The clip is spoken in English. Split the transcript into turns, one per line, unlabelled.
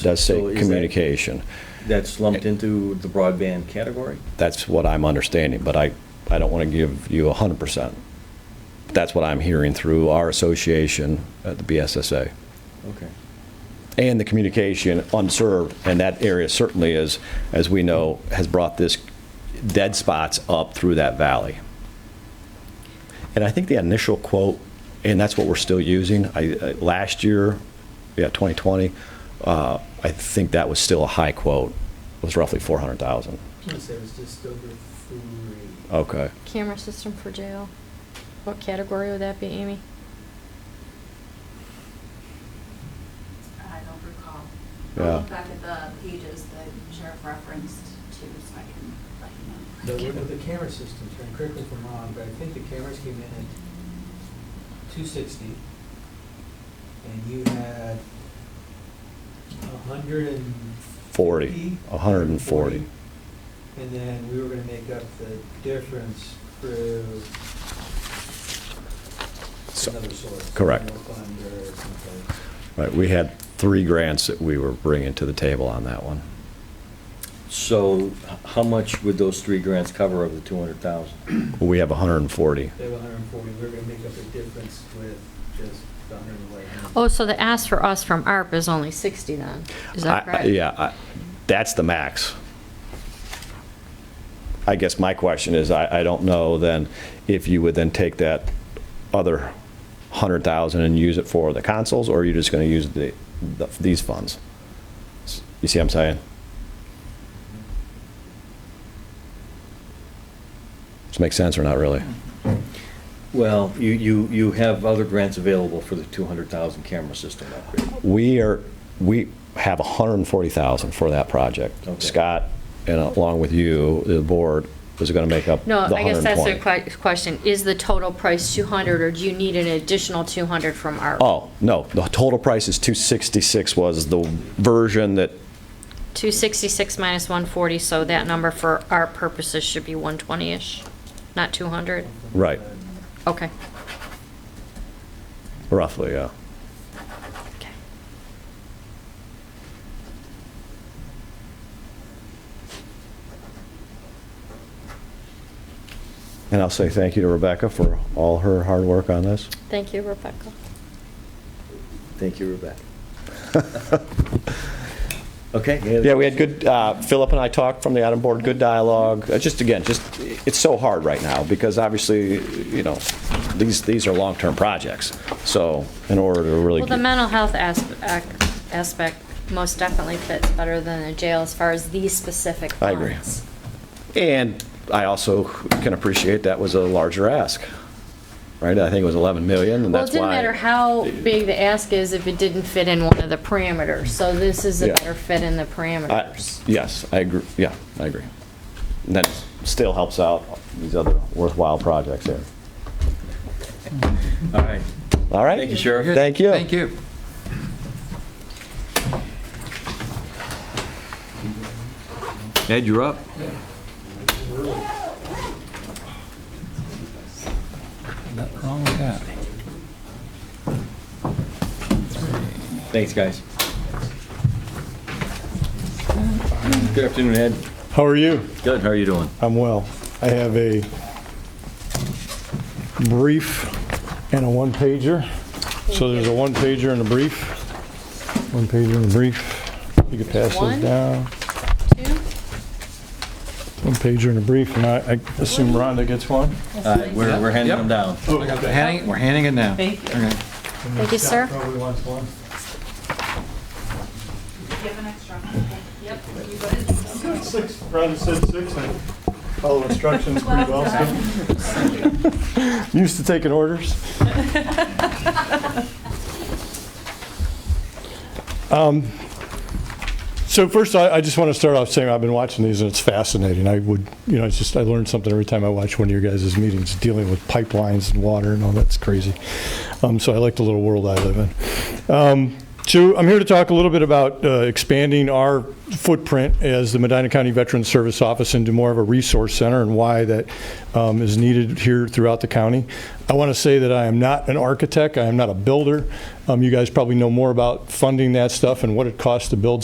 does say
So is that-
communication.
That's lumped into the broadband category?
That's what I'm understanding, but I, I don't want to give you 100%. That's what I'm hearing through our association at the BSSA.
Okay.
and the communication unserved, and that area certainly is, as we know, has brought this dead spots up through that valley. And I think the initial quote, and that's what we're still using, I, I- last year, yeah, 2020, uh, I think that was still a high quote, was roughly 400,000.
Plus, it was just over three.
Okay.
Camera system for jail. What category would that be, Amy?
I don't recall.
Yeah.
I'll look back at the pages that sheriff referenced to, so I can let
The,
you know.
with the camera system, and correct me if I'm wrong, but I think the cameras came in at two sixty. And you had a hundred and.
40, 140.
And then we were gonna make up the difference through
So-
another source.
correct.
general fund or something.
Right, we had three grants that we were bringing to the table on that one.
So h- how much would those three grants cover of the 200,000?
We have 140.
They have hundred and forty, we're gonna make up the difference with just the hundred and eleven.
Oh, so the ask for us from ARP is only 60 then? Is that
I- I-
correct?
Yeah, I- that's the max. I guess my question is, I, I don't know then, if you would then take that other 100,000 and use it for the consoles, or are you just going to use the, the- these funds? You see what I'm saying? Does it make sense or not really?
Well, you, you, you have other grants available for the 200,000 camera system upgrade.
We are, we have 140,000 for that project.
Okay.
Scott, and along with you, the board, is going to make up the
No,
120.
I guess that's the que- question. Is the total price 200 or do you need an additional 200 from ARP?
Oh, no, the total price is 266 was the version that,
266 minus 140, so that number for ARP purposes should be 120-ish, not 200?
right,
Okay.
roughly, yeah.
Okay.
And I'll say thank you to Rebecca for all her hard work on this.
Thank you, Rebecca.
Thank you, Rebecca. Okay. any other
Yeah, we had
questions?
good, uh, Philip and I talked from the item board, good dialogue. Uh, Just again, just, it's so hard right now because obviously, you know, these, these are long-term projects. So in order to really.
Well, the
get-
mental health asp- ac- aspect most definitely fits better than the jail as far as these specific
I agree.
ones.
And I also can appreciate that was a larger ask, right? I think it was 11 million Oh, and
Well,
that's
it
why.
didn't matter how big the ask is if it didn't fit in one of the parameters, so this is a
Yeah.
better fit in the
I-
parameters.
Yes, I agree, yeah, I agree. And that still helps out these other worthwhile projects there.
All right.
All right?
Thank you, Sheriff.
Thank you.
Thank you.
Ed, you're up.
Nothing wrong with that.
Thanks, guys. Good afternoon, Ed.
How are you?
Good, how are you doing?
I'm well. I have a brief and a one-pager. So there's a one-pager and a brief. One-pager and a brief. You can pass
One?
those down.
Two?
One-pager and a brief, and I I assume Rhonda gets one?
All right, Uh, we're, we're handing them down.
We're handing, we're handing it now.
Thank you.
Okay.
Thank you, sir.
Probably wants one.
Do you have an extra? Yep, you go ahead.
Six, Rhonda said six. I follow instructions pretty well, so. Used to taking orders. Um, So first, I I just want to start off saying I've been watching these and it's fascinating. I would, you know, it's just, I learned something every time I watch one of your guys' meetings, dealing with pipelines and water and all that's crazy. Um, So I like the little world I live in. Um, So I'm here to talk a little bit about uh, expanding our footprint as the Medina County Veterans Service Office into more of a resource center and why that um, is needed here throughout the county. I want to say that I am not an architect, I am not a builder. Um, You guys probably know more about funding that stuff and what it costs to build